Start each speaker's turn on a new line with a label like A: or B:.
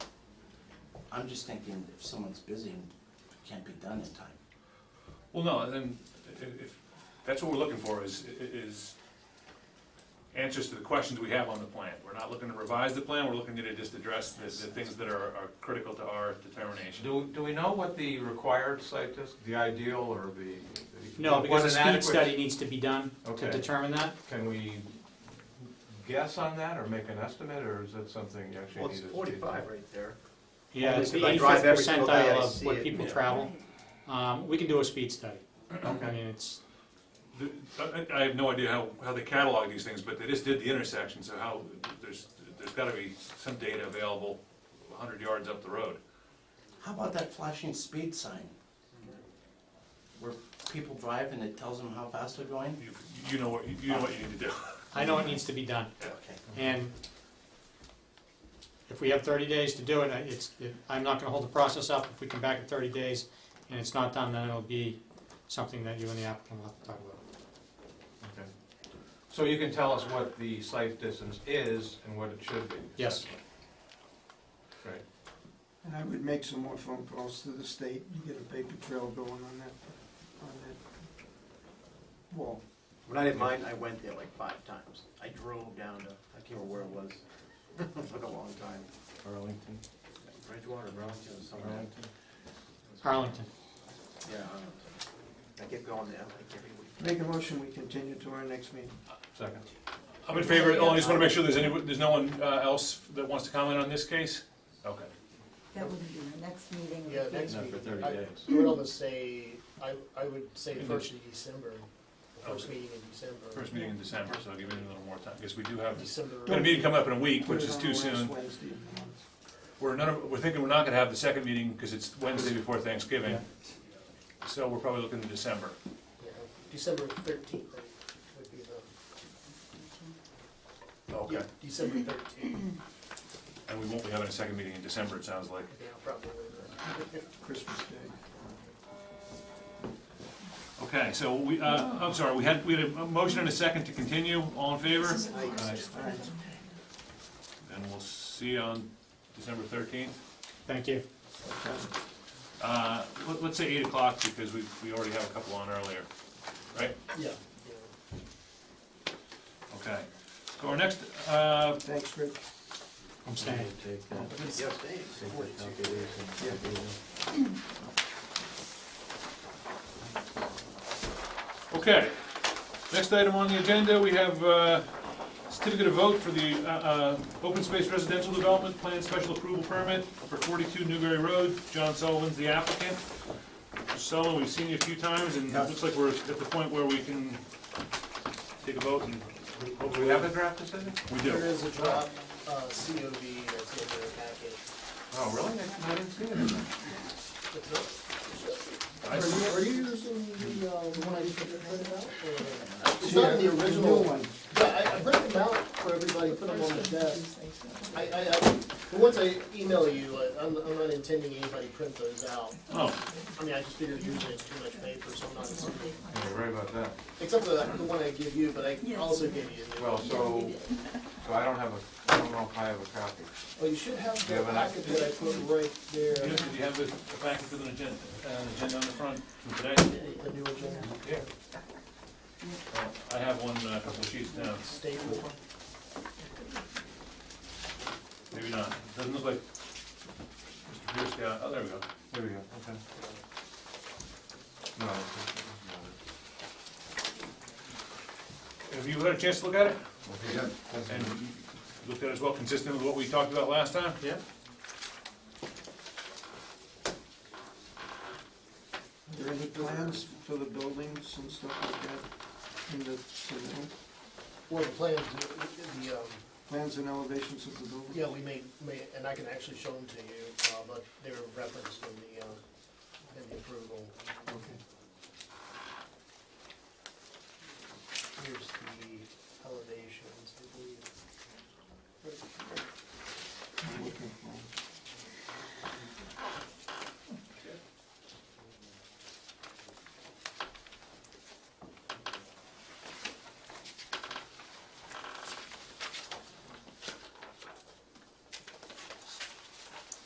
A: I'm just thinking if someone's busy and it can't be done in time.
B: Well, no, and if, if, that's what we're looking for, is, is answers to the questions we have on the plan. We're not looking to revise the plan, we're looking to just address the, the things that are, are critical to our determination.
C: Do, do we know what the required site is, the ideal or the?
D: No,
C: what
D: because a
C: an
D: speed
C: adequate-
D: study needs to be done
C: Okay.
D: to determine that.
C: Can we guess on that or make an estimate, or is that something you actually
E: Well,
C: need?
E: it's
C: to speak
E: forty-five
C: to?
E: right there.
D: Yeah, it's the
E: If I drive
D: eighty-fifth
E: every single day, I
D: percentile of
E: see
D: what
E: it.
D: people
B: Yeah.
D: travel. Um, we can do a speed study. I mean,
C: Okay,
D: it's,
B: The- I, I have no idea how, how they catalog these things, but they just did the intersection, so how, there's, there's gotta be some data available hundred yards up the road.
A: How about that flashing speed sign? Where people drive and it tells them how fast they're going?
B: You, you know what, you know what you need to do.
D: I know it needs to be done.
A: Okay.
D: And if we have thirty days to do it, I- it's, it- I'm not gonna hold the process up. If we come back in thirty days and it's not done, then it'll be something that you and the applicant will have to talk about.
C: okay. So you can tell us what the site distance is and what it should be?
D: Yes.
C: Right,
F: And I would make some more phone calls to the state and get a paper trail going on that, on that wall.
E: When I did mine, I went there like five times. I drove down to, I can't remember where it was. It took a long time.
C: Arlington,
E: Bridgewater, Burlington, or somewhere.
C: Arlington.
D: Arlington.
E: Yeah, Arlington. I kept going there like every week.
F: Make a motion, we continue to our next meeting.
C: Second.
B: I'm in favor, I just wanna make sure there's any, there's no one uh, else that wants to comment on this case? Okay.
G: That would be the next meeting. would
H: Yeah,
G: be-
H: next
C: Not
H: meeting.
C: for 30
H: I-
C: days.
H: I would almost say, I, I would say
B: In
H: first of December, the first
B: Okay.
H: meeting in December.
B: First meeting in December, so I'll give it a little more time, because we do have,
H: December.
B: we got a meeting coming up in a week,
F: Put
B: which
F: it
B: is
F: on
B: too
F: the last
B: soon.
F: Wednesday of the month.
B: We're not, we're thinking we're not gonna have the second meeting, because it's Wednesday before Thanksgiving. So we're probably looking to December.
H: yeah, December thirteenth would be the, yeah, December thirteenth,
B: And we won't be having a second meeting in December, it sounds like.
H: yeah, probably.
F: Christmas Day.
B: Okay, so we, uh, I'm sorry, we had, we had a motion and a second to continue, all in favor? And we'll see you on December thirteenth.
D: Thank you.
B: Uh, let- let's say eight o'clock, because we, we already have a couple on earlier, right?
H: Yeah, yeah.
B: Okay. So our next, uh,
F: Thanks, Rick.
D: I'm staying.
E: Yes, Dave, forty-two.
B: Okay, next item on the agenda, we have uh, certificate of vote for the uh, uh, open space residential development plan special approval permit for 42 Newberry Road. John Sullivan's the applicant. Mr. Sullivan, we've seen you a few times, and it looks like we're at the point where we can take a vote and
C: Oh, Do
B: hopefully
C: we have a draft decision?
B: We
H: There
B: do.
H: is a drop, uh, COV that's in the packet.
C: Oh, really? I didn't see it in there.
H: That's it.
B: I s-
H: Are you using the, uh, the one I just printed out, or? It's
F: Yeah,
H: not the
F: new
H: original,
F: one.
H: yeah, I, I printed them out for everybody, put them on the desk. I, I, I, but once I email you, I- I'm, I'm not intending anybody print those out.
B: Oh,
H: I mean, I just figured usually it's too much paper, so I'm not, assuming.
C: Yeah, you're right about that.
H: except for the, the one I give you, but I also give you. the-
C: Well, so, so I don't have a, I don't know if I have a copy.
H: Oh, you should have
C: Yeah,
H: the
C: but I-
H: packet that I put right there,
B: you
H: the
B: have- you have a a packet with an agenda, uh, an agenda on the front from today?
H: the new agenda,
C: Yeah.
B: Oh, I have one, uh, a couple sheets down.
H: staple.
B: Maybe not. Doesn't look like Mr. Pierce got, oh, there we go.
C: There we go, okay. No, it's-
B: Have you had a chance to look at it?
C: it's not it. Doesn't-
B: And you looked at it as well, consistent with what we talked about last time?
D: Yeah?
F: Are there any plans for the buildings and stuff like that in the, submittal?
H: Well, the plans, the, the, um,
F: plans and elevations of the building?
H: Yeah, we may, may, and I can actually show them to you, uh, but they're referenced in the, uh, in the approval.
F: Okay.
H: Here's the elevations, I believe.
F: I'm looking for-